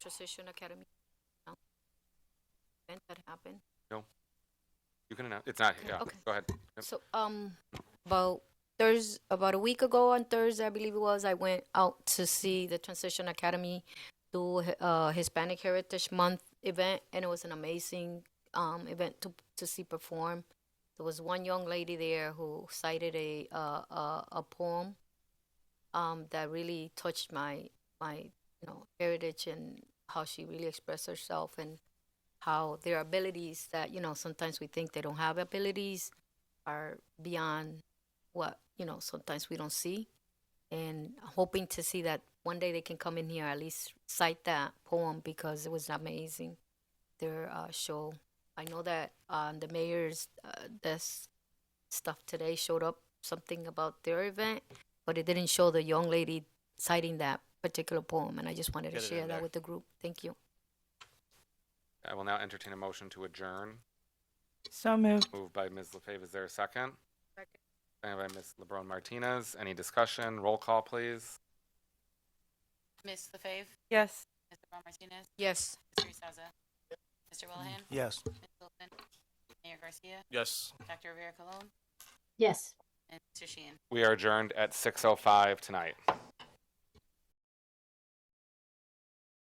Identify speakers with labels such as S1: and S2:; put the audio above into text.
S1: Transition Academy? Event that happened?
S2: You can announce, it's not, yeah,
S1: Okay.
S2: go ahead. Yep.
S1: So, um, about Thursday, about a week ago on Thursday, I believe it was, I went out to see the Transition Academy do hi- uh Hispanic Heritage Month event, and it was an amazing um event to to see perform. There was one young lady there who cited a uh, a, a poem um that really touched my my you know heritage and how she really expressed herself and how their abilities that you know sometimes we think they don't have abilities are beyond what you know sometimes we don't see and hoping to see that one day they can come in here at least cite that poem because it was amazing their uh, show i know that um, the mayor's uh, desk stuff today showed up something about their event but it didn't show the young lady citing that particular poem and i just wanted
S3: Get
S1: to
S3: it
S1: share
S3: in
S1: that
S3: there.
S1: with the group thank you
S2: I will now entertain a motion to adjourn.
S4: So moved.
S2: Moved by Ms. LaFave, is there a second? Second. by Ms. LeBron Martinez, any discussion? Roll call, please.
S5: Ms. LaFave,
S4: Yes.
S5: Mr. Ron Martinez,
S1: yes
S5: Mr. Saza, Mr. Willoughby,
S3: Yes.
S5: Ms. Wilson, Mayor Garcia,
S3: Yes.
S5: Dr. Rivera Colon,
S6: Yes.
S5: and Mr. Sheehan.
S2: We are adjourned at 6:05 tonight.